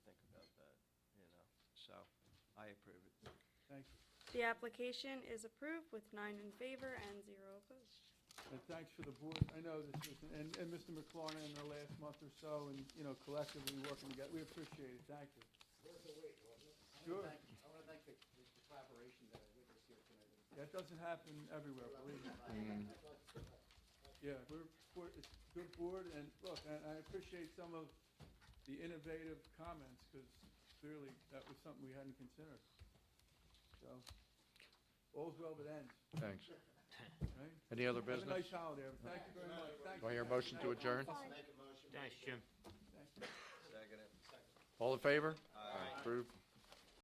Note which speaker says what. Speaker 1: so I approve it.
Speaker 2: Thank you.
Speaker 3: The application is approved with nine in favor and zero opposed.
Speaker 2: And thanks for the board. I know this was, and, and Mr. McLaurin in the last month or so, and, you know, collectively working together, we appreciate it. Thank you.
Speaker 4: Worth the wait, wasn't it?
Speaker 2: Sure.
Speaker 4: I want to thank, I want to thank the the collaboration that I witnessed here tonight.
Speaker 2: That doesn't happen everywhere, believe me.
Speaker 4: I'd like to-
Speaker 2: Yeah, we're, we're, it's a good board, and look, and I appreciate some of the innovative comments, because clearly that was something we hadn't considered. So, all's well that ends,
Speaker 5: Thanks.
Speaker 2: right?
Speaker 5: Any other
Speaker 2: Have a
Speaker 5: business?
Speaker 2: nice holiday, thank you very much, thank
Speaker 5: Do
Speaker 2: you.
Speaker 5: I hear a motion to adjourn?
Speaker 4: Make a motion.
Speaker 6: Thanks, Jim.
Speaker 2: Thank you.
Speaker 1: Second it.
Speaker 5: All in favor? Aye. Approved.